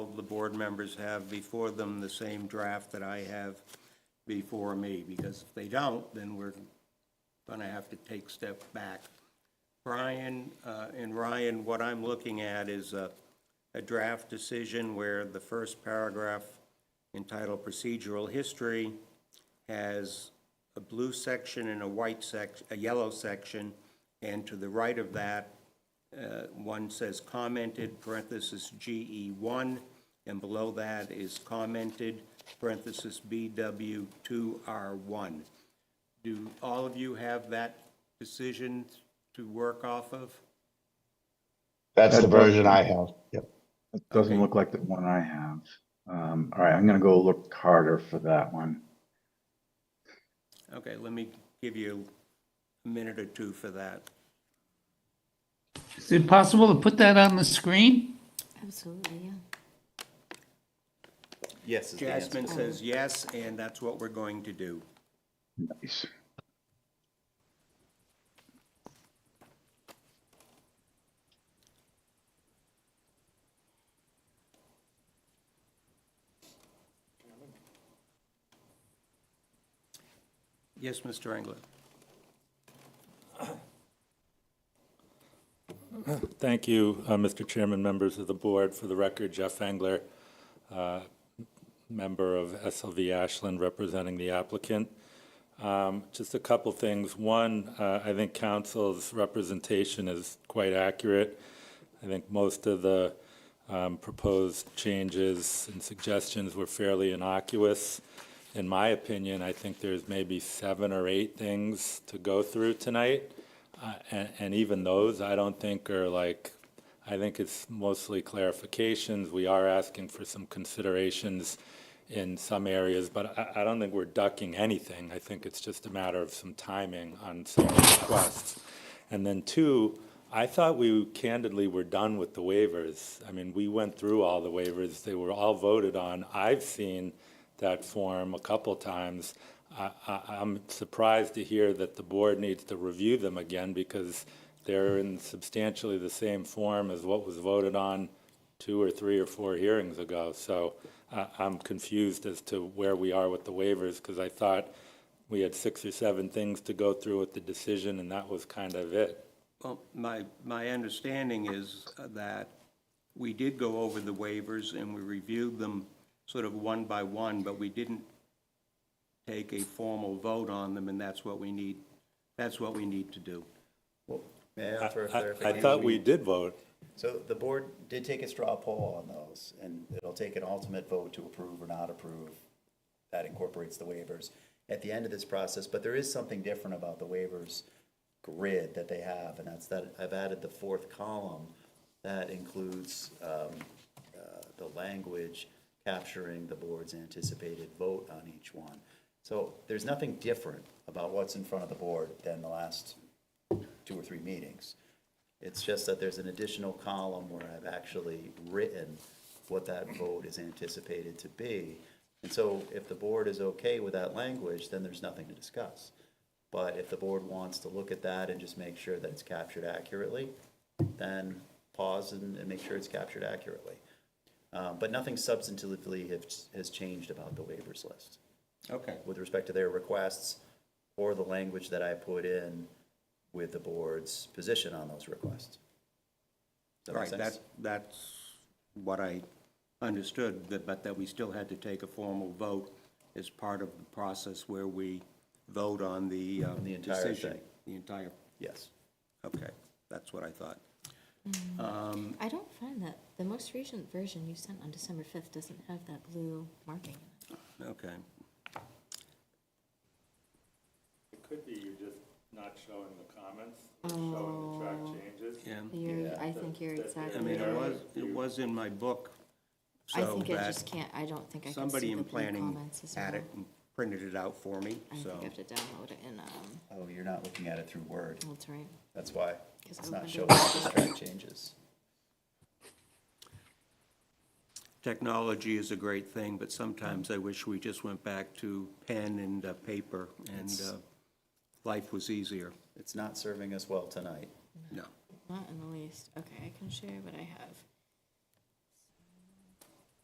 of the board members have before them the same draft that I have before me, because if they don't, then we're gonna have to take step back. Brian uh, and Ryan, what I'm looking at is a, a draft decision where the first paragraph entitled procedural history has a blue section and a white sec, a yellow section, and to the right of that, uh, one says commented, parenthesis GE one, and below that is commented, parenthesis BW two R one. Do all of you have that decision to work off of? That's the That's what- version I have. Yep. It doesn't look like the one I have. Um, all right, I'm gonna go look harder for that one. Okay, let me give you a minute or two for that. Is it possible to put that on the screen? Absolutely, yeah. Yes is the answer. Jasmine says yes, and that's what we're going to do. Nice. Yes, Mr. Engler? Thank you, uh, Mr. Chairman, members of the board. For the record, Jeff Engler, uh, member of SLV Ashland, representing the applicant. Um, Just a couple things. One, uh, I think council's representation is quite accurate. I think most of the um, proposed changes and suggestions were fairly innocuous. In my opinion, I think there's maybe seven or eight things to go through tonight. Uh, And, and even those, I don't think are like, I think it's mostly clarifications. We are asking for some considerations in some areas, but I, I don't think we're ducking anything. I think it's just a matter of some timing on some requests. And then two, I thought we candidly were done with the waivers. I mean, we went through all the waivers. They were all voted on. I've seen that form a couple times. I, I, I'm surprised to hear that the board needs to review them again because they're in substantially the same form as what was voted on two or three or four hearings ago. So I, I'm confused as to where we are with the waivers because I thought we had six or seven things to go through with the decision and that was kind of it. Well, my, my understanding is that we did go over the waivers and we reviewed them sort of one by one, but we didn't take a formal vote on them, and that's what we need, that's what we need to do. May I I, I- offer a I clarification? thought we did vote. So the board did take a straw poll on those, and it'll take an ultimate vote to approve or not approve. That incorporates the waivers at the end of this process, but there is something different about the waivers grid that they have, and that's that I've added the fourth column that includes um, uh, the language capturing the board's anticipated vote on each one. So there's nothing different about what's in front of the board than the last two or three meetings. It's just that there's an additional column where I've actually written what that vote is anticipated to be. And so if the board is okay with that language, then there's nothing to discuss. But if the board wants to look at that and just make sure that it's captured accurately, then pause and, and make sure it's captured accurately. Uh, but nothing substantively has, has changed about the waivers list Okay. with respect to their requests or the language that I put in with the board's position on those requests. Does that make Right, sense? that, that's what I understood, that- but that we still had to take a formal vote as part of the process where we vote on the uh, The entire decision. thing. The entire, Yes. okay, that's what I thought. I don't find that, the most recent version you sent on December 5th doesn't have that blue marking. Okay. It could be you're just not showing the comments, showing the track changes. Um, Yeah. You're, I think you're I exactly mean, it right. was, it was in my book, I so think I that just can't, I don't think I can somebody see the in blue planning comments as well. had it and printed it out for me, I think so. I have to download it in, um, Oh, you're not looking at it through Word. that's right. That's why Because it's I not opened showing it. the track changes. Technology is a great thing, but sometimes I wish we just went back to pen and uh, paper and uh, life was easier. It's not serving us well tonight. No. Not in the least. Okay, I can share what I have.